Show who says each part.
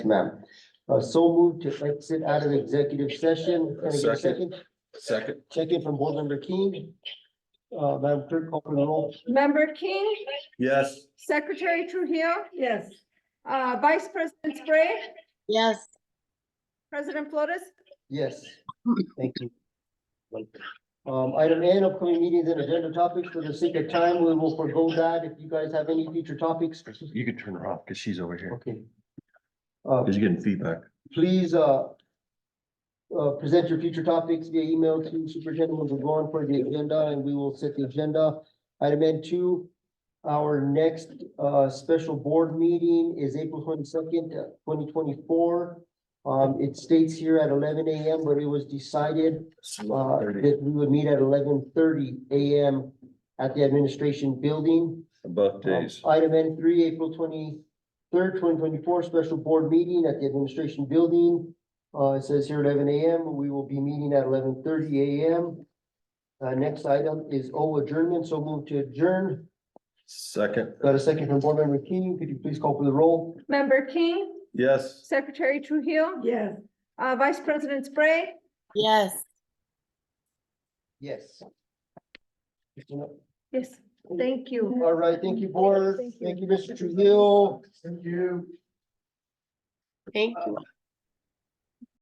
Speaker 1: ma'am. Uh, so moved to exit out of executive session. Can I get a second?
Speaker 2: Second.
Speaker 1: Second from board member King. Uh, Madam Clerk, open the roll.
Speaker 3: Member King,
Speaker 2: Yes.
Speaker 3: Secretary Trujillo,
Speaker 4: Yes.
Speaker 3: uh, Vice President Spray,
Speaker 5: Yes.
Speaker 3: President Flores.
Speaker 1: Yes, thank you. Um, item N, upcoming meetings and agenda topics. For the sake of time, we will forego that. If you guys have any future topics.
Speaker 2: You can turn her off because she's over here.
Speaker 1: Okay. Uh,
Speaker 2: Because you're getting feedback.
Speaker 1: please, uh, uh, present your future topics via email to Superintendent Mugwan for the agenda, and we will set the agenda. Item N two, our next, uh, special board meeting is April twenty-second, uh, twenty twenty-four. Um, it states here at eleven AM, but it was decided, uh, that we would meet at eleven thirty AM at the administration building.
Speaker 2: Both days.
Speaker 1: Um, Item N three, April twenty-third, twenty twenty-four, special board meeting at the administration building. Uh, it says here eleven AM, we will be meeting at eleven thirty AM. Uh, next item is O adjournment, so move to adjourn.
Speaker 2: Second.
Speaker 1: Got a second from board member King, could you please call for the roll?
Speaker 3: Member King,
Speaker 2: Yes.
Speaker 3: Secretary Trujillo,
Speaker 4: Yes.
Speaker 3: uh, Vice President Spray,
Speaker 5: Yes.
Speaker 1: Yes.
Speaker 3: yes, thank you.
Speaker 1: All right, thank you, board,
Speaker 3: Thank you.
Speaker 1: thank you, Mr. Trujillo.
Speaker 4: Thank you.
Speaker 5: Thank you.